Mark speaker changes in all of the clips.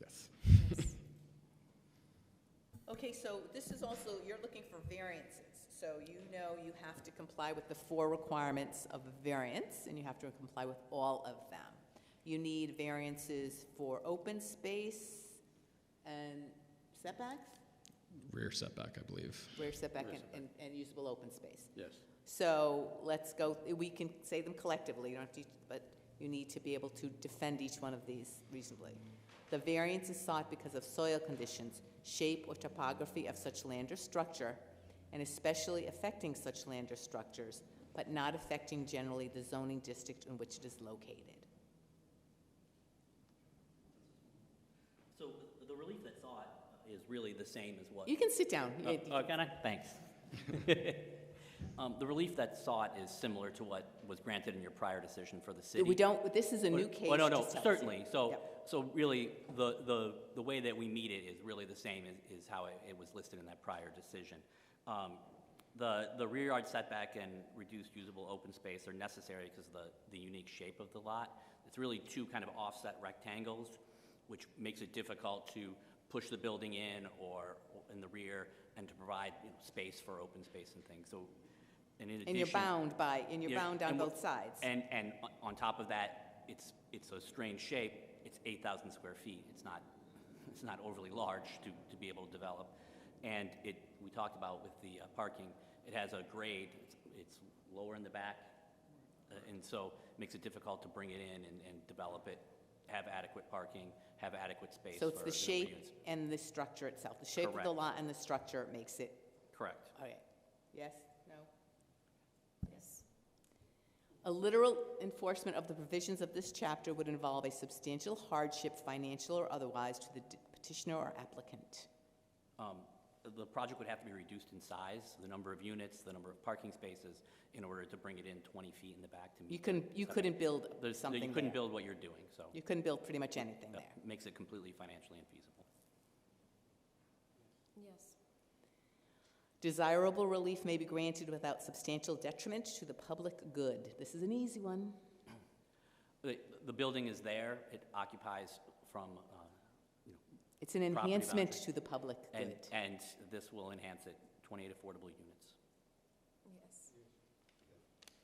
Speaker 1: Yes.
Speaker 2: Okay, so this is also, you're looking for variances, so you know you have to comply with the four requirements of a variance, and you have to comply with all of them. You need variances for open space and setbacks,
Speaker 1: Rear setback, I believe.
Speaker 2: rear setback and- and, and usable open space.
Speaker 3: Yes.
Speaker 2: So let's go, we can say them collectively, you don't have to, but you need to be able to defend each one of these reasonably. The variance is sought because of soil conditions, shape or topography of such land or structure, and especially affecting such land or structures, but not affecting generally the zoning district in which it is located.
Speaker 4: So the relief that's sought is really the same as what?
Speaker 2: You can sit down.
Speaker 4: Oh, oh, can I? Thanks. Um, The relief that's sought is similar to what was granted in your prior decision for the city.
Speaker 2: We don't, this is a new
Speaker 4: Oh,
Speaker 2: case.
Speaker 4: Oh, no, no,
Speaker 2: just tell us.
Speaker 4: certainly. So,
Speaker 2: Yep.
Speaker 4: so really, the, the, the way that we meet it is really the same as, is how it, it was listed in that prior decision. Um, The, the rear yard setback and reduced usable open space are necessary because of the, the unique shape of the lot. It's really two kind of offset rectangles, which makes it difficult to push the building in or in the rear and to provide, you know, space for open space and things, so, and in addition.
Speaker 2: And you're bound by, and you're
Speaker 4: Yeah,
Speaker 2: bound on
Speaker 4: and wha-
Speaker 2: both sides.
Speaker 4: And, and on- on top of that, it's, it's a strange shape, it's 8,000 square feet, it's not, it's not overly large to, to be able to develop. And it, we talked about with the uh, parking, it has a grade, it's- it's lower in the back, uh, and so makes it difficult to bring it in and, and develop it, have adequate parking, have adequate space
Speaker 2: So it's
Speaker 4: for
Speaker 2: the
Speaker 4: the
Speaker 2: shape
Speaker 4: reuse.
Speaker 2: and the structure itself. The shape of the
Speaker 4: Correct.
Speaker 2: lot and the structure makes it,
Speaker 4: Correct.
Speaker 2: all right. Yes, no?
Speaker 5: Yes.
Speaker 2: A literal enforcement of the provisions of this chapter would involve a substantial hardship, financial or otherwise, to the d- petitioner or applicant.
Speaker 4: Um, The project would have to be reduced in size, the number of units, the number of parking spaces, in order to bring it in 20 feet in the back to meet.
Speaker 2: You couldn't, you couldn't build
Speaker 4: There's,
Speaker 2: something
Speaker 4: you couldn't
Speaker 2: there.
Speaker 4: build what you're doing, so
Speaker 2: You couldn't build pretty much anything
Speaker 4: that
Speaker 2: there.
Speaker 4: makes it completely financially infeasible.
Speaker 5: Yes.
Speaker 2: Desirable relief may be granted without substantial detriment to the public good. This is an easy one.
Speaker 4: The, the building is there, it occupies from, uh, you know,
Speaker 2: It's an
Speaker 4: Property
Speaker 2: enhancement to
Speaker 4: boundary.
Speaker 2: the public
Speaker 4: and,
Speaker 2: good.
Speaker 4: and this will enhance it, 28 affordable units.
Speaker 5: Yes.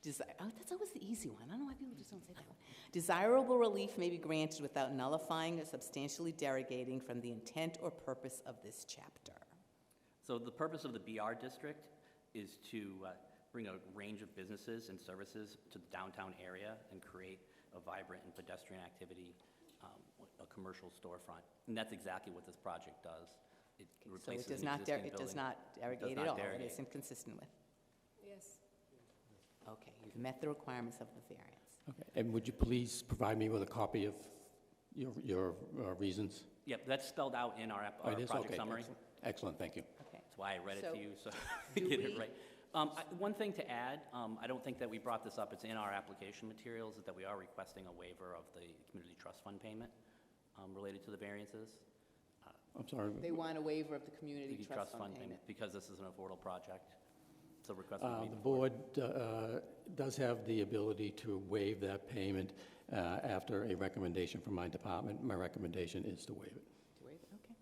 Speaker 2: Desi- oh, that's always the easy one. I don't know why people just don't say that one. Desirable relief may be granted without nullifying or substantially derogating from the intent or purpose of this chapter.
Speaker 4: So the purpose of the BR district is to uh, bring a range of businesses and services to the downtown area and create a vibrant and pedestrian activity, um, a commercial storefront. And that's exactly what this project does. It
Speaker 2: So it
Speaker 4: replaces
Speaker 2: does
Speaker 4: an
Speaker 2: not, der-
Speaker 4: existing
Speaker 2: it does
Speaker 4: building.
Speaker 2: not derogate
Speaker 4: not
Speaker 2: at all. It
Speaker 4: derogate.
Speaker 2: is inconsistent with.
Speaker 5: Yes.
Speaker 2: Okay, you've met the requirements of the variance.
Speaker 3: Okay, and would you please provide me with a copy of your, your uh, reasons?
Speaker 4: Yep, that's spelled out in our, app-
Speaker 3: Oh,
Speaker 4: our
Speaker 3: it is?
Speaker 4: project
Speaker 3: Okay,
Speaker 4: summary.
Speaker 3: excellent. Excellent, thank you.
Speaker 2: Okay.
Speaker 4: That's why I read it
Speaker 2: So,
Speaker 4: to you, so
Speaker 2: do
Speaker 4: get
Speaker 2: we-
Speaker 4: it right. Um, I- One thing to add, um, I don't think that we brought this up, it's in our application materials, is that we are requesting a waiver of the community trust fund payment um, related to the variances.
Speaker 3: I'm sorry.
Speaker 2: They want a waiver of the community
Speaker 4: Community
Speaker 2: trust fund payment.
Speaker 4: Because this is an affordable project, so request would
Speaker 3: Uh,
Speaker 4: be
Speaker 3: The
Speaker 4: before.
Speaker 3: board uh, does have the ability to waive that payment uh, after a recommendation from my department. My recommendation is to waive it.
Speaker 2: To waive it, Okay.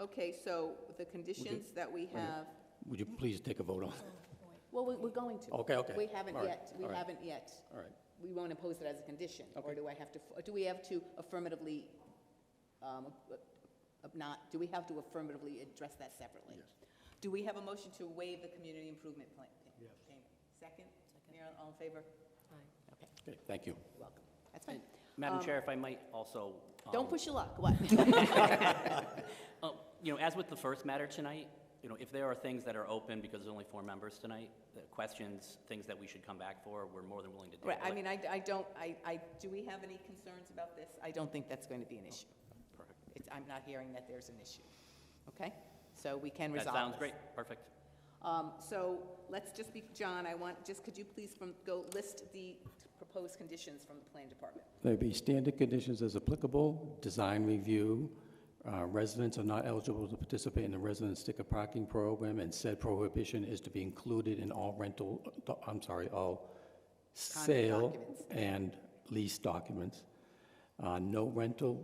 Speaker 2: Okay, so the conditions that we
Speaker 3: minute.
Speaker 2: have,
Speaker 3: Would you please take a vote on it?
Speaker 2: well, we- we're going to.
Speaker 3: Okay, okay.
Speaker 2: We haven't
Speaker 3: All right,
Speaker 2: yet, we
Speaker 3: all right,
Speaker 2: haven't yet.
Speaker 3: All right.
Speaker 2: we won't impose it as a condition? Or
Speaker 3: Okay.
Speaker 2: do I have to, or do we have to affirmatively, um, uh, not, do we have to affirmatively address that separately?
Speaker 3: Yes.
Speaker 2: Do we have a motion to waive the community improvement plan? Yes. Second? Marilyn, all in favor? Okay,
Speaker 3: Okay, thank you.
Speaker 2: you're welcome. That's fine.
Speaker 4: Madam
Speaker 2: um,
Speaker 4: Chair, if I might also.
Speaker 2: Don't
Speaker 4: um,
Speaker 2: push your luck, what?
Speaker 4: Uh, You know, as with the first matter tonight, you know, if there are things that are open, because there's only four members tonight, that questions, things that we should come back for, we're more than willing to table
Speaker 2: Right, I
Speaker 4: it.
Speaker 2: mean, I, I don't, I, I, do we have any concerns about this? I don't think that's going to be an issue.
Speaker 4: Perfect.
Speaker 2: It's, I'm not hearing that there's an issue, okay? So we can
Speaker 4: That
Speaker 2: resolve
Speaker 4: sounds
Speaker 2: this.
Speaker 4: great, perfect.
Speaker 2: Um, So let's just be, John, I want, just could you please from, go list the proposed conditions from the plan department?
Speaker 3: There'd be standard conditions as applicable, design review, uh, residents are not eligible to participate in the resident sticker parking program, and said prohibition is to be included in all rental, I'm sorry, all sale
Speaker 2: documents.
Speaker 3: and lease documents. Uh, No rental